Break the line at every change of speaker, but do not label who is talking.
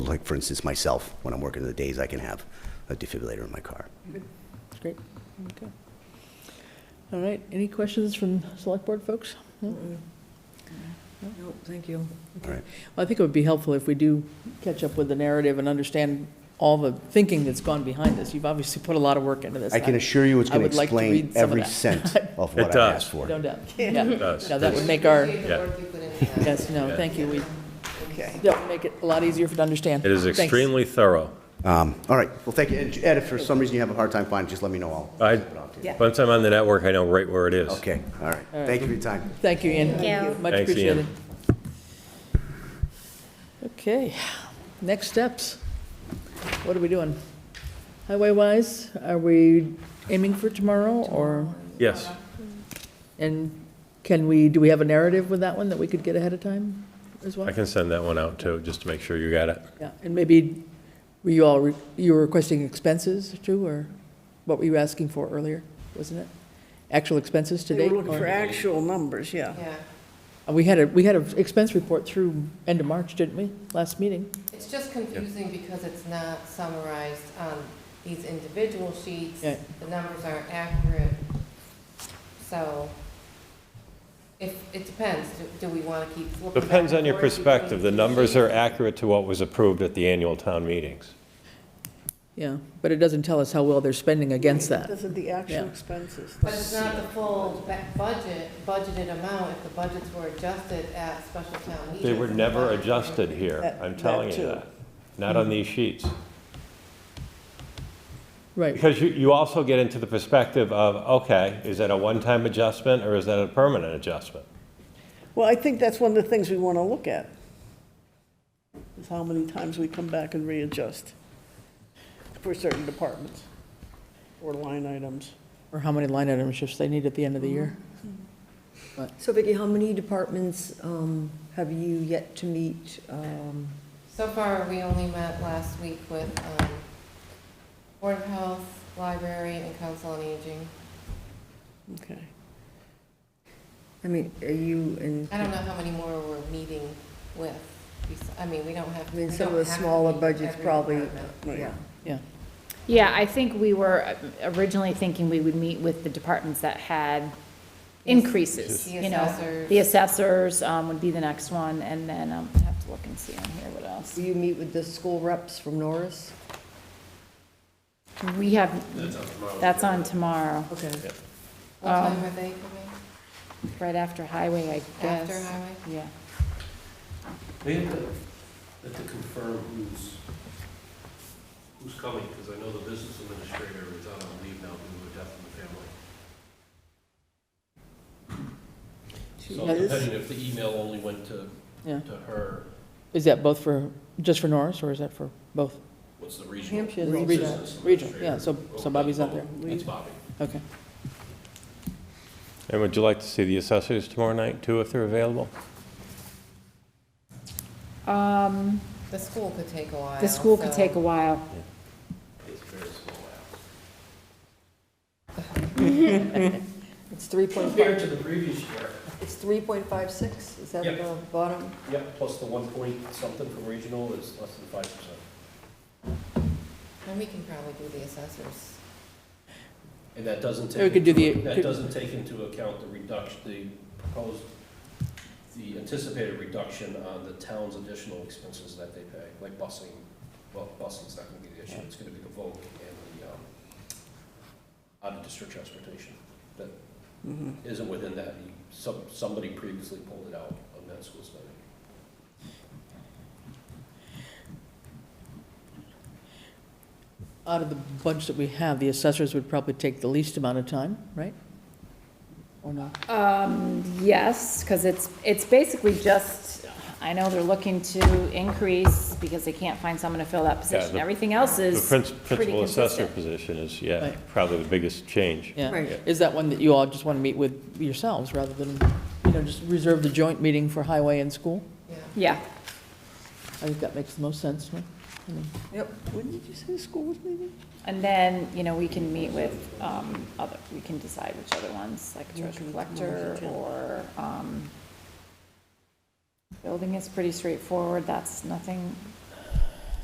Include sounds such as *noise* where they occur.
like for instance, myself, when I'm working the days, I can have a defibrillator in my car.
Great, okay. All right, any questions from select board folks? No?
No, thank you.
All right.
Well, I think it would be helpful if we do catch up with the narrative and understand all the thinking that's gone behind this. You've obviously put a lot of work into this.
I can assure you it's
I
going
would
to
like to read
explain
some of
every
that. *laughs*
cent of what
It
I
does.
asked for.
No doubt, yeah.
does.
Now, that would make our,
Yeah.
yes, no, thank you, we,
Okay.
that would make it a lot easier for to understand.
It is
Thanks.
extremely thorough.
Um, All right, well, thank you. And Ed, if for some reason you have a hard time finding, it, just let me know. I'll
I,
send it off to you.
Yeah.
once I'm on the network, I know right where it is.
Okay, all right. Thank you for your time.
Thank you, Ian.
Thank you.
Much
Thanks, Ian.
appreciated. Okay, next steps. What are we doing? Highway-wise, are we aiming for tomorrow, or,
Yes,
and can we, do we have a narrative with that one that we could get ahead of time as well?
I can send that one out too, just to make sure you got it.
Yeah, and maybe, were you all, re- you were requesting expenses too, or what were you asking for earlier, wasn't it? Actual expenses
They
today?
were looking for actual numbers, yeah.
Yeah,
Uh, We had a, we had an expense report through end of March, didn't we, last meeting?
it's just confusing because it's not summarized on these individual sheets.
Yeah.
The numbers aren't accurate. So if, it depends, Do- do we want to keep flipping? back
Depends
and
on your
forth between
perspective. The
two
numbers are
sheets?
accurate to what was approved at the annual town meetings.
Yeah, but it doesn't tell us how well they're spending against that.
Those are the actual
Yeah.
expenses.
But it's not the full ba- budget, budgeted amount if the budgets were adjusted at special town meetings.
They were never adjusted here,
That-
I'm telling
that
you
too.
that. Not on these sheets.
Right,
Because you, you also get into the perspective of, okay, is that a one-time adjustment or is that a permanent adjustment?
Well, I think that's one of the things we want to look at, is how many times we come back and readjust for certain departments or line items.
or how many line item shifts they need at the end of the year.
So Vicki, how many departments um, have you yet to meet? um,
So far, we only met last week with um, Board of Health, Library, and Council on Aging.
Okay.
I mean, are you in,
I don't know how many more we're meeting with. bes- I mean, we don't have.
I mean,
we
some of
don't
the
have to
smaller
meet
budgets
every
probably-
department.
yeah.
Mm-hmm.
Yeah,
Yeah, I think we were originally thinking we would meet with the departments that had increases,
The
you know.
assessors.
The assessors um, would be the next one, and then um, I have to look and see on here what else.
Do you meet with the school reps from Norris?
We have, that's on tomorrow,
Okay.
What
Um,
time are they coming?
right after highway, I guess.
After highway?
Yeah.
They have to, they have to confirm who's, who's coming, because I know the business administrator is out on leave now due to a death in the family. So depending if the email only went to,
yeah.
to her,
Is that both for, just for Norris, or is that for both?
what's the regional?
Hampshire.
business
Regional, regional, yeah, so-
administrator.
so Bobby's not there.
That's Bobby.
Okay.
And would you like to see the assessors tomorrow night too, if they're available?
Um,
The school could take a while.
The school could
so-
take a while.
It's very small out.
It's 3.5,
Compared to the previous year.
it's 3.56, is that
Yep.
the bottom?
Yep, plus the one point something from regional is less than five percent.
And we can probably do the assessors.
And that doesn't
Or we
take,
could do the-
into- that
could-
doesn't take into account the reduction, the proposed, the anticipated reduction on the town's additional expenses that they pay, like busing. Well, busing's not gonna be the issue, it's gonna be the vote and the, um, out-of-district transportation. That
Mm-hmm.
isn't within that, You- some, somebody previously pulled it out of that school spending.
Out of the bunch that we have, the assessors would probably take the least amount of time, right? Or not?
Um, yes, because it's, it's basically just, I know they're looking to increase because they can't find someone to fill that position.
the-
Everything else
The
is
princ-
pretty
principal assessor
consistent.
position is, yeah,
Right.
probably the biggest change.
Yeah.
Right.
Is that one that you all just want to meet with yourselves, rather than, you know, just reserve the joint meeting for highway and school?
Yeah.
Yeah,
I think that makes the most sense, no? I mean,
Yep.
When did you say the school was meeting?
and then, you know, we can meet with, um, other, we can decide which other ones, like treasure collector or, um, building is pretty straightforward, that's nothing